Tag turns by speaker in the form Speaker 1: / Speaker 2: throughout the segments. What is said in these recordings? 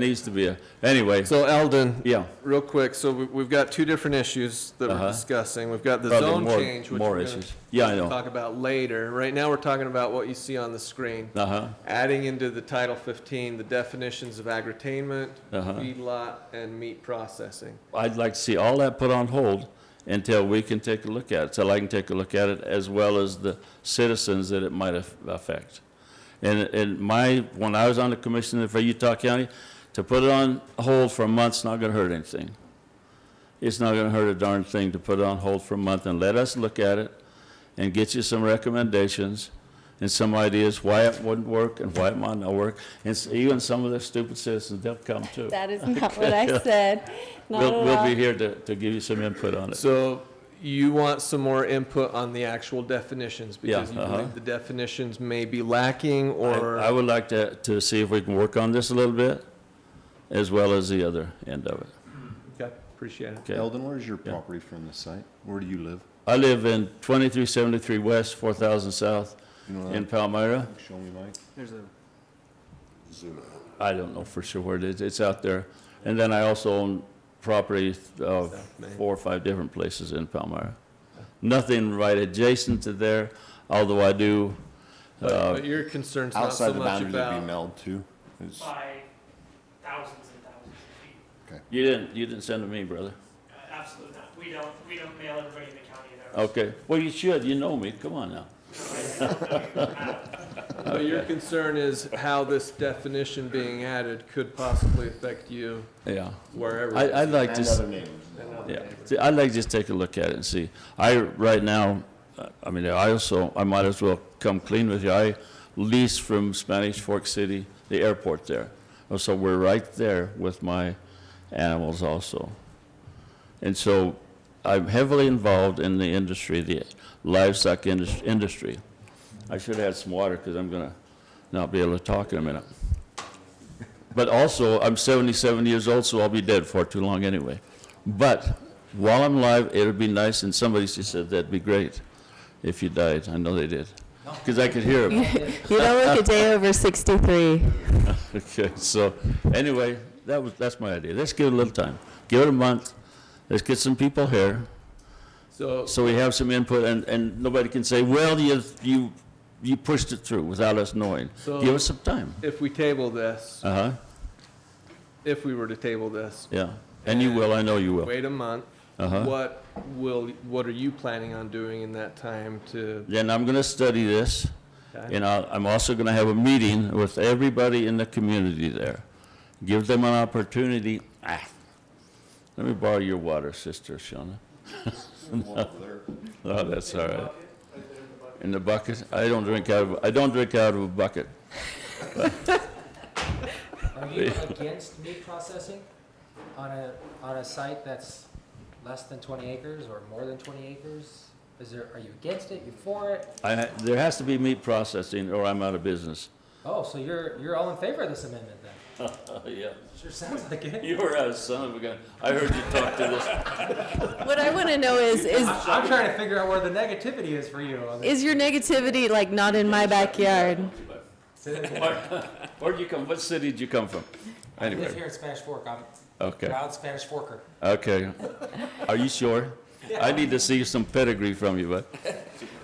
Speaker 1: Needs to be a, anyway,
Speaker 2: So Eldon,
Speaker 1: yeah,
Speaker 2: real quick, so we- we've got two different issues that
Speaker 1: Uh-huh.
Speaker 2: we're discussing. We've got the
Speaker 1: Probably
Speaker 2: zone
Speaker 1: more-
Speaker 2: change, which
Speaker 1: more
Speaker 2: we're gonna
Speaker 1: issues. Yeah, I know.
Speaker 2: talk about later. Right now, we're talking about what you see on the screen.
Speaker 1: uh-huh,
Speaker 2: Adding into the Title 15, the definitions of agri-tainment,
Speaker 1: Uh-huh.
Speaker 2: feedlot, and meat processing.
Speaker 1: I'd like to see all that put on hold until we can take a look at it, so I can take a look at it as well as the citizens that it might aff- affect. And, and my, when I was on the commission for Utah County, to put it on hold for a month's not gonna hurt anything. It's not gonna hurt a darn thing to put it on hold for a month and let us look at it and get you some recommendations and some ideas why it wouldn't work and why it might not work. And s- even some of the stupid citizens, they'll come too.
Speaker 3: That is not what I said. Not at
Speaker 1: We'll, we'll
Speaker 3: all.
Speaker 1: be here to, to give you some input on it.
Speaker 2: So you want some more input on the actual definitions? Because you
Speaker 1: uh-huh.
Speaker 2: believe the definitions may be lacking
Speaker 1: I I
Speaker 2: or,
Speaker 1: would like to, to see if we can work on this a little bit, as well as the other end of it.
Speaker 2: Okay, appreciate it.
Speaker 1: Okay.
Speaker 4: Eldon, where is your property from the site? Where do you live?
Speaker 1: I live in twenty-three seventy-three west, four thousand south,
Speaker 4: You know
Speaker 1: in
Speaker 4: that?
Speaker 1: Palmyra.
Speaker 4: Show me, Mike.
Speaker 1: I don't know for sure where it is, it's out there. And then I also own property of
Speaker 2: Main.
Speaker 1: four or five different places in Palmyra. Nothing right adjacent to there, although I do,
Speaker 2: But but your concern's not
Speaker 4: Outside
Speaker 2: so
Speaker 4: the
Speaker 2: much
Speaker 4: boundaries would be
Speaker 2: about,
Speaker 4: meld too. It's-
Speaker 5: by thousands and thousands of feet.
Speaker 1: you didn't, you didn't send to me, brother.
Speaker 5: Uh, Absolutely not. We don't, we don't mail everybody in the county their.
Speaker 1: Okay, well, you should, you know me, come on now.
Speaker 2: but your concern is how this definition being added could possibly affect you
Speaker 1: Yeah.
Speaker 2: wherever.
Speaker 1: I, I'd like to.
Speaker 4: And
Speaker 1: s-
Speaker 4: other neighbors.
Speaker 1: Yeah, See, I'd like to just take a look at it and see. I, right now, uh, I mean, I also, I might as well come clean with you. I lease from Spanish Fork City, the airport there. Oh, So we're right there with my animals also. And so I'm heavily involved in the industry, the livestock indus- industry. I should have had some water because I'm going to not be able to talk in a minute. But also, I'm 77 years old, so I'll be dead for too long anyway. But while I'm alive, it'd be nice, and somebody she said, that'd be great if you died. I know they did, because I could hear them.
Speaker 3: You don't look a day over 63.
Speaker 1: Okay, so, anyway, that was, that's my idea. Let's give it a little time. Give it a month. Let's get some people here,
Speaker 2: So,
Speaker 1: so we have some input, and, and nobody can say, well, you, you, you pushed it through without us knowing.
Speaker 2: So-
Speaker 1: Give us some time.
Speaker 2: if we table this,
Speaker 1: Uh-huh,
Speaker 2: if we were to table this,
Speaker 1: yeah. And you will, I know you will.
Speaker 2: wait a month,
Speaker 1: Uh-huh.
Speaker 2: what will, what are you planning on doing in that time to?
Speaker 1: Then I'm gonna study this.
Speaker 2: okay?
Speaker 1: And I'll- I'm also going to have a meeting with everybody in the community there. Give them an opportunity, ah, let me borrow your water, Sister Shawna. Oh, that's all right. In the bucket? I don't drink out of, I don't drink out of a bucket.
Speaker 6: Are you against meat processing on a, on a site that's less than twenty acres or more than twenty acres? Is there, are you against it, you for it?
Speaker 1: I, ha- there has to be meat processing or I'm out of business.
Speaker 6: Oh, so you're, you're all in favor of this amendment then?
Speaker 1: Oh, yeah.
Speaker 6: Sure sounds like it.
Speaker 1: You were a son of a gun. I heard you talk to this.
Speaker 3: What I want to know is, is,
Speaker 6: I'm I'm trying to figure out where the negativity is for you on this.
Speaker 3: is your negativity like not in my backyard?
Speaker 1: Where- Where'd you come, what city did you come from?
Speaker 6: I live
Speaker 1: Anyway,
Speaker 6: here in Spanish Fork, I'm a
Speaker 1: okay. Mm,
Speaker 6: proud Spanish Forker.
Speaker 1: Okay. Are you sure? I need to see some pedigree from you, but,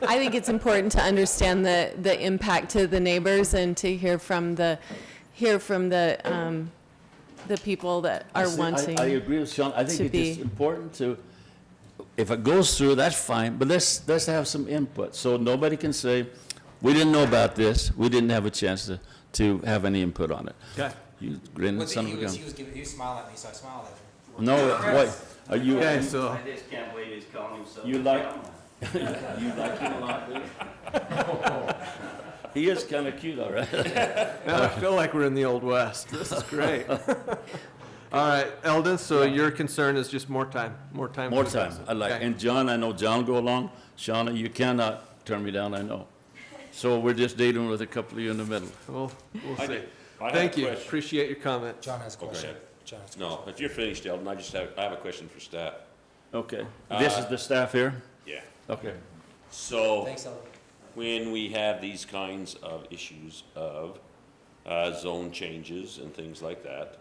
Speaker 3: I think it's important to understand the, the impact to the neighbors and to hear from the, hear from the, um, the people that are
Speaker 1: See, I-
Speaker 3: wanting.
Speaker 1: I agree with Sean. I think
Speaker 3: to
Speaker 1: it is
Speaker 3: be-
Speaker 1: important to, if it goes through, that's fine, but let's, let's have some input. So nobody can say, we didn't know about this, we didn't have a chance to, to have any input on it.
Speaker 2: Okay.
Speaker 1: You grinning son of a gun.
Speaker 6: was giving, he was smiling at me, so I smiled at him.
Speaker 1: No, what, are you,
Speaker 2: Okay, so,
Speaker 7: I just can't believe he's calling himself. a
Speaker 1: You like-
Speaker 7: cowman.
Speaker 1: you like him a lot, do you? He is kinda cute, all right.
Speaker 2: now I feel like we're in the old west. This is great. All right, Eldon, so your concern is just more time, more time.
Speaker 1: More
Speaker 2: for
Speaker 1: time,
Speaker 2: this.
Speaker 1: I like,
Speaker 2: Okay.
Speaker 1: and John, I know John go along, Shauna, you cannot turn me down, I know. So we're just dealing with a couple of you in the middle.
Speaker 2: We'll, we'll see.
Speaker 8: I have a
Speaker 2: Thank you.
Speaker 8: question.
Speaker 2: Appreciate your comment.
Speaker 6: John has a question. John has a
Speaker 8: No, if you're finished, Eldon, I just have, I have a question for staff.
Speaker 1: Okay, this is the staff here?
Speaker 8: Yeah.
Speaker 1: Okay.
Speaker 8: So,
Speaker 6: Thanks, Ellen.
Speaker 8: when we have these kinds of issues of, uh, zone changes and things like that,